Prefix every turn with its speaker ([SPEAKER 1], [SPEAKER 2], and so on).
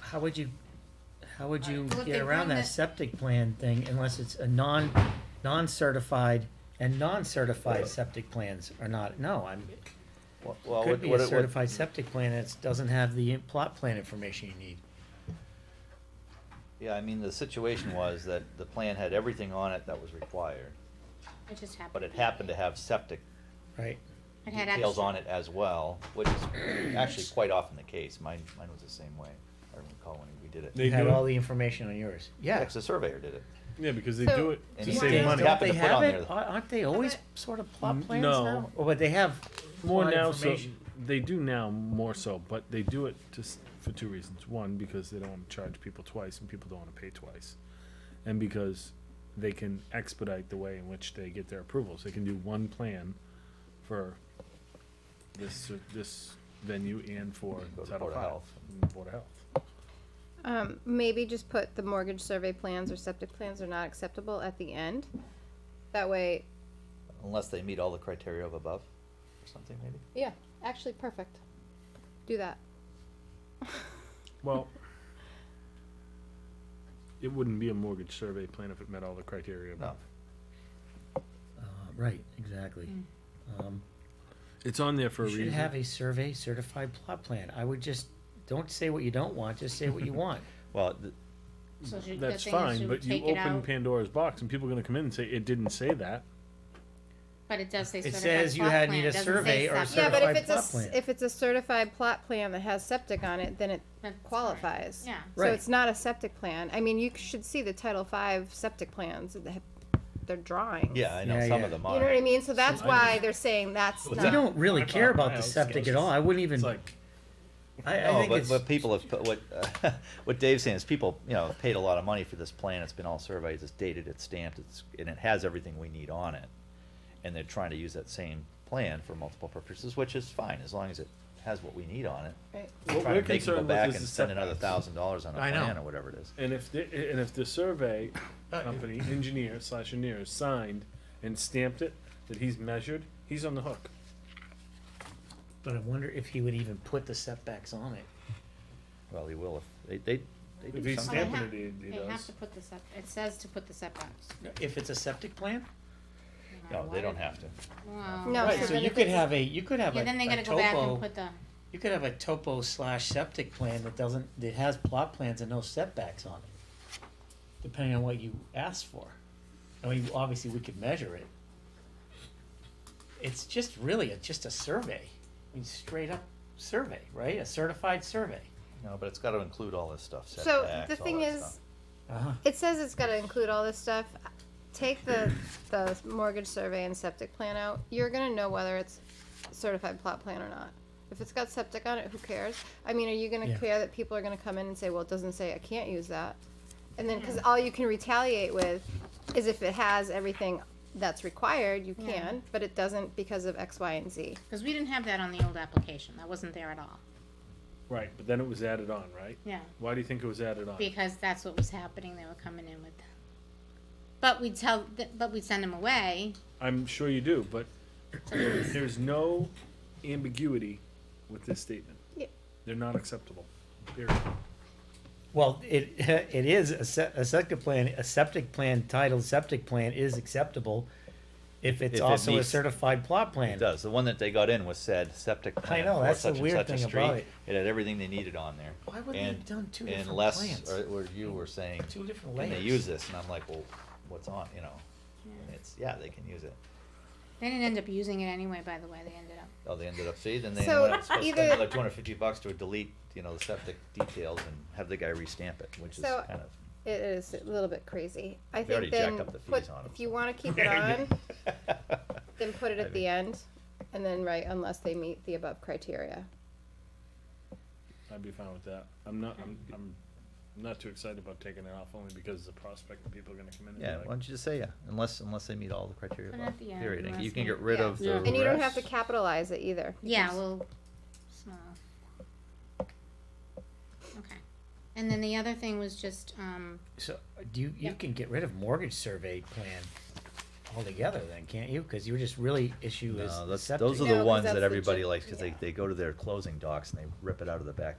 [SPEAKER 1] how would you, how would you
[SPEAKER 2] Alright, well, if
[SPEAKER 1] get
[SPEAKER 2] they
[SPEAKER 1] around
[SPEAKER 2] bring
[SPEAKER 1] that
[SPEAKER 2] the-
[SPEAKER 1] septic plan thing unless it's a non, non-certified and non-certified septic plans are not, no, I'm,
[SPEAKER 3] Well,
[SPEAKER 1] it
[SPEAKER 3] what-
[SPEAKER 1] could be
[SPEAKER 3] what-
[SPEAKER 1] a
[SPEAKER 3] what-
[SPEAKER 1] certified septic plan that doesn't have the plot plan information you need.
[SPEAKER 3] Yeah, I mean, the situation was that the plan had everything on it that was required,
[SPEAKER 2] It just happened.
[SPEAKER 3] but it happened to have septic
[SPEAKER 1] Right.
[SPEAKER 2] It had
[SPEAKER 3] details
[SPEAKER 2] extra-
[SPEAKER 3] on it as well, which is actually quite often the case. Mine, mine was the same way. I recall when we did it.
[SPEAKER 1] You
[SPEAKER 4] They
[SPEAKER 1] had
[SPEAKER 4] do it-
[SPEAKER 1] all the information on yours. Yeah.
[SPEAKER 3] Actually, the surveyor did it.
[SPEAKER 4] Yeah, because they
[SPEAKER 2] So-
[SPEAKER 4] do it
[SPEAKER 3] And he
[SPEAKER 4] to
[SPEAKER 1] Don't
[SPEAKER 3] saved
[SPEAKER 1] they-
[SPEAKER 4] save money.
[SPEAKER 1] Don't
[SPEAKER 3] Happened
[SPEAKER 1] they
[SPEAKER 3] to put
[SPEAKER 1] have
[SPEAKER 3] on
[SPEAKER 1] it?
[SPEAKER 3] there.
[SPEAKER 1] Aren't aren't they always sort of plot
[SPEAKER 4] N-
[SPEAKER 1] plans
[SPEAKER 4] no.
[SPEAKER 1] now? Or would they have
[SPEAKER 4] More
[SPEAKER 1] plot
[SPEAKER 4] now, so
[SPEAKER 1] information?
[SPEAKER 4] they do now more so, but they do it just for two reasons. One, because they don't want to charge people twice, and people don't want to pay twice, and because they can expedite the way in which they get their approvals. They can do one plan for this uh, this venue and for
[SPEAKER 3] Go to
[SPEAKER 4] Title
[SPEAKER 3] Board of
[SPEAKER 4] V,
[SPEAKER 3] Health.
[SPEAKER 4] and Board of Health.
[SPEAKER 5] Um, maybe just put the mortgage survey plans or septic plans are not acceptable at the end. That way,
[SPEAKER 3] Unless they meet all the criteria of above or something, maybe.
[SPEAKER 5] yeah, actually, perfect. Do that.
[SPEAKER 4] Well, it wouldn't be a mortgage survey plan if it met all the criteria.
[SPEAKER 3] No.
[SPEAKER 1] Uh, Right, exactly. Um,
[SPEAKER 4] It's on there for
[SPEAKER 1] You
[SPEAKER 4] a
[SPEAKER 1] should
[SPEAKER 4] reason.
[SPEAKER 1] have a survey certified plot plan. I would just, don't say what you don't want, just say what you want.
[SPEAKER 3] Well, th-
[SPEAKER 2] So she- the
[SPEAKER 4] That's
[SPEAKER 2] thing is
[SPEAKER 4] fine,
[SPEAKER 2] she
[SPEAKER 4] but
[SPEAKER 2] would
[SPEAKER 4] you
[SPEAKER 2] take it
[SPEAKER 4] open
[SPEAKER 2] out,
[SPEAKER 4] Pandora's box and people are gonna come in and say, it didn't say that.
[SPEAKER 2] But it does say
[SPEAKER 1] It
[SPEAKER 2] certified
[SPEAKER 1] says you
[SPEAKER 2] plot
[SPEAKER 1] had
[SPEAKER 2] plan,
[SPEAKER 1] need a
[SPEAKER 2] it doesn't say
[SPEAKER 1] survey or
[SPEAKER 2] septic.
[SPEAKER 5] Yeah, but if
[SPEAKER 1] Certified
[SPEAKER 5] it's a,
[SPEAKER 1] plot
[SPEAKER 5] s-
[SPEAKER 1] plan.
[SPEAKER 5] if it's a certified plot plan that has septic on it, then it
[SPEAKER 2] That's right.
[SPEAKER 5] qualifies.
[SPEAKER 2] Yeah.
[SPEAKER 5] So
[SPEAKER 1] Right.
[SPEAKER 5] it's not a septic plan. I mean, you should see the Title V septic plans, that have- they're drawings.
[SPEAKER 3] yeah, I know
[SPEAKER 1] Yeah,
[SPEAKER 3] some
[SPEAKER 1] yeah.
[SPEAKER 3] of them
[SPEAKER 5] You
[SPEAKER 3] are.
[SPEAKER 5] know what I mean? So that's
[SPEAKER 4] I-
[SPEAKER 5] why they're saying that's
[SPEAKER 4] We
[SPEAKER 1] We
[SPEAKER 5] not,
[SPEAKER 1] don't really
[SPEAKER 4] I
[SPEAKER 1] care
[SPEAKER 4] thought
[SPEAKER 1] about the
[SPEAKER 4] my house
[SPEAKER 1] septic
[SPEAKER 4] was-
[SPEAKER 1] at all. I wouldn't even,
[SPEAKER 4] It's
[SPEAKER 1] I,
[SPEAKER 4] like,
[SPEAKER 1] I
[SPEAKER 3] No,
[SPEAKER 1] think
[SPEAKER 3] Oh, but,
[SPEAKER 1] it's,
[SPEAKER 3] but people have, put- what, uh, what Dave's saying is people, you know, paid a lot of money for this plan, it's been all surveyed, it's dated, it's stamped, it's, and it has everything we need on it. And they're trying to use that same plan for multiple purposes, which is fine, as long as it has what we need on it.
[SPEAKER 5] right?
[SPEAKER 4] what
[SPEAKER 3] Try
[SPEAKER 4] we're
[SPEAKER 3] to make them go
[SPEAKER 4] concerned
[SPEAKER 3] back
[SPEAKER 4] with is
[SPEAKER 3] and
[SPEAKER 4] the
[SPEAKER 3] spend another
[SPEAKER 4] setbacks.
[SPEAKER 3] thousand dollars on a
[SPEAKER 1] I know.
[SPEAKER 3] plan or whatever it is.
[SPEAKER 4] And if the, and if the survey company, engineer slash engineer signed and stamped it, that he's measured, he's on the hook.
[SPEAKER 1] but I wonder if he would even put the setbacks on it.
[SPEAKER 3] Well, he will if, they, they, they do
[SPEAKER 4] If he's
[SPEAKER 2] Oh, they
[SPEAKER 3] something.
[SPEAKER 4] stamping
[SPEAKER 2] have-
[SPEAKER 4] it, he- he
[SPEAKER 2] They have
[SPEAKER 4] does.
[SPEAKER 2] to put this up, it says to put the setbacks.
[SPEAKER 1] If it's a septic plan?
[SPEAKER 3] No, they don't have to.
[SPEAKER 2] Wow.
[SPEAKER 5] No,
[SPEAKER 1] Right,
[SPEAKER 5] so
[SPEAKER 1] so
[SPEAKER 5] then
[SPEAKER 1] you
[SPEAKER 5] if
[SPEAKER 1] could
[SPEAKER 5] it's-
[SPEAKER 1] have a, you could have a
[SPEAKER 2] Yeah,
[SPEAKER 1] a
[SPEAKER 2] then they gotta go back and
[SPEAKER 1] topo,
[SPEAKER 2] put the,
[SPEAKER 1] you could have a topo slash septic plan that doesn't, that has plot plans and no setbacks on it. Depending on what you ask for. I mean, obviously, we could measure it. It's just really, it's just a survey. I mean, straight up survey, right? A certified survey.
[SPEAKER 3] No, but it's gotta include all this stuff,
[SPEAKER 5] So the
[SPEAKER 3] setbacks, all
[SPEAKER 5] thing
[SPEAKER 3] that
[SPEAKER 5] is,
[SPEAKER 3] stuff.
[SPEAKER 1] Uh-huh.
[SPEAKER 5] It says it's gotta include all this stuff. Take the, the mortgage survey and septic plan out. You're gonna know whether it's certified plot plan or not. If it's got septic on it, who cares? I mean, are you gonna
[SPEAKER 1] Yeah.
[SPEAKER 5] care that people are gonna come in and say, well, it doesn't say I can't use that? And then, cause all you can retaliate with is if it has everything that's required, you
[SPEAKER 2] Yeah.
[SPEAKER 5] can, but it doesn't because of X, Y, and Z.
[SPEAKER 2] cause we didn't have that on the old application, that wasn't there at all,
[SPEAKER 4] Right, but then it was added on, right?
[SPEAKER 2] yeah.
[SPEAKER 4] Why do you think it was added on?
[SPEAKER 2] because that's what was happening. They were coming in with, but we tell, th- but we send them away.
[SPEAKER 4] I'm sure you do, but there's no ambiguity with this statement.
[SPEAKER 5] Yeah.
[SPEAKER 4] They're not acceptable, period.
[SPEAKER 1] Well, it, it is, a se- a septic plan, a septic plan titled septic plan is acceptable if
[SPEAKER 3] If
[SPEAKER 1] it's
[SPEAKER 3] it
[SPEAKER 1] also a
[SPEAKER 3] meets-
[SPEAKER 1] certified plot plan.
[SPEAKER 3] It does. The one that they got in was said septic plan
[SPEAKER 1] know,
[SPEAKER 3] for
[SPEAKER 1] that's the
[SPEAKER 3] such and
[SPEAKER 1] weird
[SPEAKER 3] such a
[SPEAKER 1] thing
[SPEAKER 3] street.
[SPEAKER 1] about it.
[SPEAKER 3] It had everything they needed on there.
[SPEAKER 1] Why would they
[SPEAKER 3] And-
[SPEAKER 1] have done two
[SPEAKER 3] and
[SPEAKER 1] different
[SPEAKER 3] Les
[SPEAKER 1] plans?
[SPEAKER 3] Or, or you were saying,
[SPEAKER 1] Two different
[SPEAKER 3] can
[SPEAKER 1] layers.
[SPEAKER 3] they use this? And I'm like, well, what's on, you know? And It's, yeah, they can use it.
[SPEAKER 2] They didn't end up using it anyway. By the way, they ended up.
[SPEAKER 3] Oh, they ended up, see, then they
[SPEAKER 5] So
[SPEAKER 3] went up, supposed to spend
[SPEAKER 5] either-
[SPEAKER 3] another two hundred fifty bucks to delete, you know, the septic details and have the guy restamp it, which is
[SPEAKER 5] So-
[SPEAKER 3] kind of.
[SPEAKER 5] It is a little bit crazy. I
[SPEAKER 3] They already
[SPEAKER 5] think then,
[SPEAKER 3] jacked up the
[SPEAKER 5] put,
[SPEAKER 3] fees on 'em,
[SPEAKER 5] if you
[SPEAKER 3] so.
[SPEAKER 5] wanna keep it on, then put it
[SPEAKER 3] I
[SPEAKER 5] at the end, and then write unless they meet the above criteria.
[SPEAKER 4] I'd be fine with that. I'm not, I'm, I'm not too excited about taking it off only because the prospect that people are gonna come in
[SPEAKER 3] Yeah, why
[SPEAKER 4] and be like,
[SPEAKER 3] don't you just say, yeah, unless, unless they meet all the criteria
[SPEAKER 2] Put it
[SPEAKER 3] above,
[SPEAKER 2] at the end,
[SPEAKER 3] period. And You
[SPEAKER 2] unless
[SPEAKER 3] can
[SPEAKER 2] they-
[SPEAKER 3] get rid
[SPEAKER 2] yeah.
[SPEAKER 3] of
[SPEAKER 4] Yeah.
[SPEAKER 3] the
[SPEAKER 4] And
[SPEAKER 5] And you don't have to
[SPEAKER 3] rest.
[SPEAKER 5] capitalize it either.
[SPEAKER 2] Yeah, well, small. Okay, and then the other thing was just um,
[SPEAKER 1] So, do you, you
[SPEAKER 2] Yeah.
[SPEAKER 1] can get rid of mortgage survey plan altogether then, can't you? Cause you were just really issue
[SPEAKER 3] No,
[SPEAKER 1] is
[SPEAKER 3] that's, those
[SPEAKER 1] septic.
[SPEAKER 5] No,
[SPEAKER 3] are the
[SPEAKER 5] 'cause
[SPEAKER 3] ones
[SPEAKER 5] that's
[SPEAKER 3] that
[SPEAKER 5] the
[SPEAKER 3] everybody
[SPEAKER 5] gen-
[SPEAKER 3] likes, cause they,
[SPEAKER 5] yeah.
[SPEAKER 3] they go to their closing docs and they rip it out of the back